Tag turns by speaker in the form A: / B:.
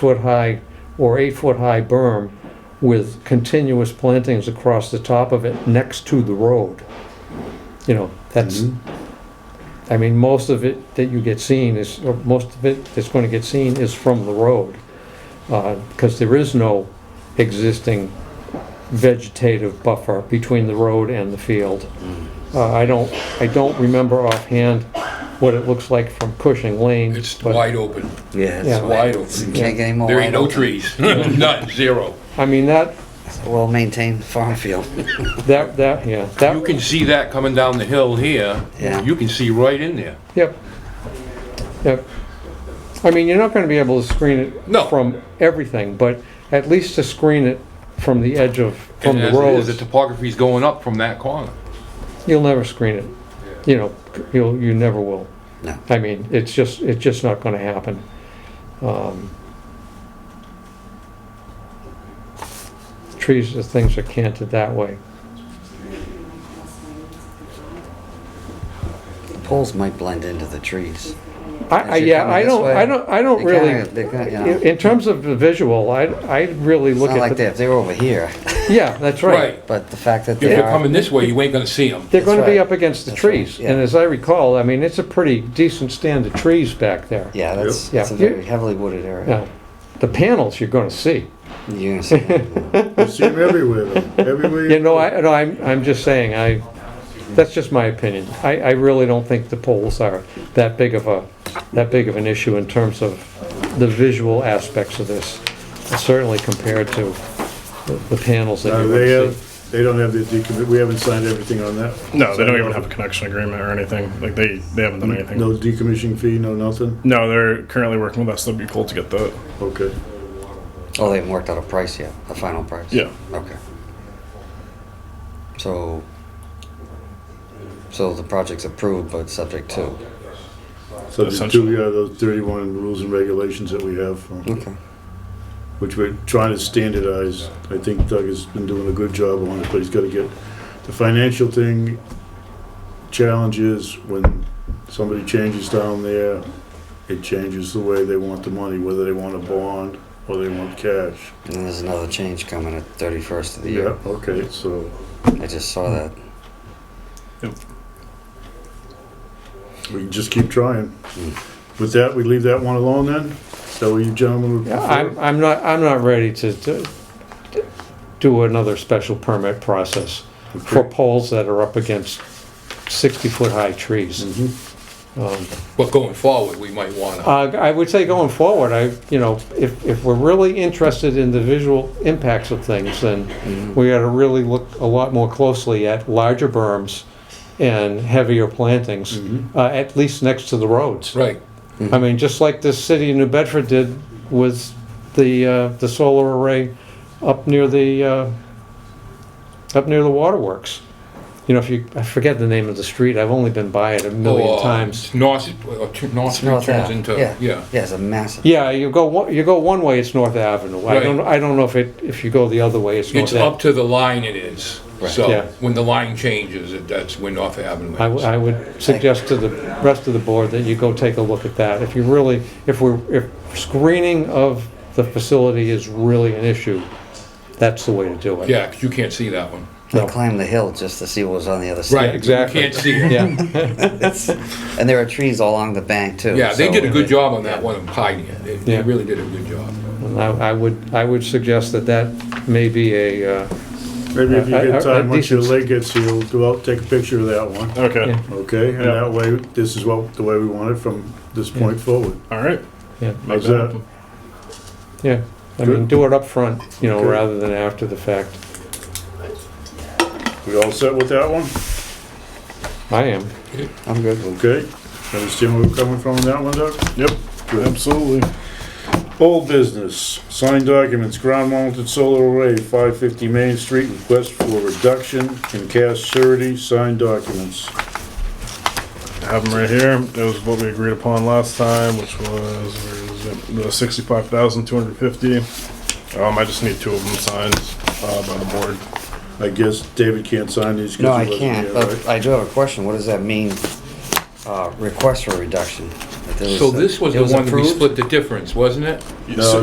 A: six-foot-high or eight-foot-high berm with continuous plantings across the top of it next to the road. You know, that's,
B: Mm-hmm.
A: I mean, most of it that you get seen is, or most of it that's going to get seen is from the road. Because there is no existing vegetative buffer between the road and the field.
B: Mm.
A: Uh, I don't, I don't remember offhand what it looks like from Cushing Lane.
B: It's
A: but-
B: wide open.
A: Yeah.
C: Yeah, it's
B: Wide
C: wide.
B: open.
C: Can't get any more.
B: There ain't
C: wide
B: no
C: open.
B: trees. None, zero.
A: I mean, that,
C: It's a well-maintained farm field.
A: That, that, yeah,
B: You
A: that,
B: can see that coming down the hill here.
C: Yeah.
B: You can see right in there.
A: yep, yep. I mean, you're not gonna be able to screen it
B: No.
A: from everything, but at least to screen it from the edge of, from
B: And
A: the
B: as it is,
A: road,
B: The topography's going up from that corner.
A: you'll never screen it. You know, you'll, you never will.
C: No.
A: I mean, it's just, it's just not gonna happen. Um, Trees are things are canted that way.
C: The poles might blend into the trees.
A: I,
C: As
A: I,
C: you're
A: yeah,
C: coming
A: I
C: this
A: don't,
C: way,
A: I don't, I don't
C: They
A: really,
C: kinda- they kinda, you know,
A: in in terms of the visual, I, I really
C: It's
A: look at.
C: not like
A: the-
C: that, if they were over here,
A: Yeah, that's right.
B: Right.
C: but the fact that
B: If
C: they
B: you're
C: are,
B: coming this way, you ain't gonna see them.
A: They're
C: That's
A: gonna be
C: right.
A: up against the
C: That's right,
A: trees, and
C: yeah.
A: as I recall, I mean, it's a pretty decent stand of trees back there.
C: yeah, that's,
A: Yeah.
C: it's a very heavily wooded area.
A: Now, The panels you're gonna see.
C: You're gonna see that, yeah.
D: You see them everywhere, though. everywhere.
A: You know, I, no, I'm, I'm just saying, I, that's just my opinion. I, I really don't think the poles are that big of a, that big of an issue in terms of the visual aspects of this, certainly compared to the- the panels that
D: Uh,
A: you're
D: They
A: gonna see.
D: have, they don't have the decommit, we haven't signed everything on that.
E: No, they don't even have a connection agreement or anything. Like they, they haven't
A: Mm,
E: done anything.
D: No decommissioning fee, no nothing?
E: No, they're currently working with us. That'd be cool to get that.
D: Okay.
C: Oh, they haven't worked out a price yet, a final price?
E: Yeah.
C: Okay. So, so the project's approved but subject to,
D: So the two,
E: Essentially.
D: yeah, those thirty-one rules and regulations that we have,
A: Hmm.
D: uh,
C: okay,
D: which we're trying to standardize. I think Doug has been doing a good job on it, but he's gotta get, the financial thing challenges when somebody changes down there, it changes the way they want the money, whether they want a bond or they want cash.
C: and then there's another change coming at thirty-first of the
D: Yeah,
C: year,
D: okay, so.
C: I just saw that.
D: We can just keep trying. With that, we leave that one alone then? Is that what you gentlemen would
A: Yeah, I'm,
D: prefer?
A: I'm not, I'm not ready to, to to do another special permit process for poles that are up against sixty-foot-high trees. Um,
B: But going forward, we might wanna.
A: Uh, I would say going forward, I, you know, if, if we're really interested in the visual impacts of things, then we gotta really look a lot more closely at larger berms and heavier plantings, uh, at least next to the roads.
B: Right.
A: I mean, just like this city of New Bedford did with the, uh, the solar array up near the, uh, up near the waterworks. You know, if you, I forget the name of the street, I've only been by it a
B: Or,
A: million
B: uh,
A: times.
B: North, uh, t- North Street
C: North
B: turns
C: Ave,
B: into,
C: yeah.
B: yeah.
C: Yeah, it's a massive,
A: Yeah, you go, one- you go one way, it's North Avenue. I
B: Right.
A: don't, I don't know if it, if you go the other way, it's North
B: It's up
A: Ave.
B: to the line it is.
A: Yeah.
B: So when the line changes, it- that's when North Avenue
A: I, w-
B: ends.
A: I would suggest to the rest of the board that you go take a look at that. If you really, if we're, if screening of the facility is really an issue, that's the way to do it.
B: Yeah, 'cause you can't see that one.
C: they
A: No.
C: climbed the hill just to see what was on the other
B: Right,
C: side.
B: you
A: exactly.
B: can't see it.
A: Yeah.
C: And there are trees all along the bank too.
B: Yeah, they
C: so-
B: did a good job on that one, of hiding it. They-
A: Yeah.
B: They really did a good job.
A: And I I would, I would suggest that that may be a, uh,
D: Maybe if you
A: I- I-
D: get
A: I-
D: time, once your
A: these-
D: leg gets healed, go out, take a picture of that one,
E: Okay.
A: Yeah.
D: okay? And
E: Yeah.
D: that way, this is what, the way we want it from this point forward.
E: All right.
A: yeah,
E: Make
D: How's
E: that
D: that?
E: happen.
A: yeah. I mean,
D: Good.
A: do it up front, you know,
D: Good.
A: rather than after the fact.
D: We all set with that one?
A: I am.
C: I'm good.
D: Okay. Understand where we're coming from on that one, Doug?
E: Yep. Absolutely.
D: Old business, signed documents, ground mounted solar array, five fifty Main Street, request for reduction in cash surety, signed documents.
E: Have them right here. That was what we agreed upon last time, which was where is it? the sixty-five thousand two hundred fifty. Um, I just need two of them signed uh, by the board.
D: I guess David can't sign these. 'cause
C: No,
D: he
C: I
D: wasn't
C: can't,
D: here,
C: but
D: right?
C: I do have a question. What does that mean? Uh, request for reduction? That there was
B: So
C: a-
B: this was
C: it
B: the one that we
C: approved?
B: split the difference, wasn't it?
D: No,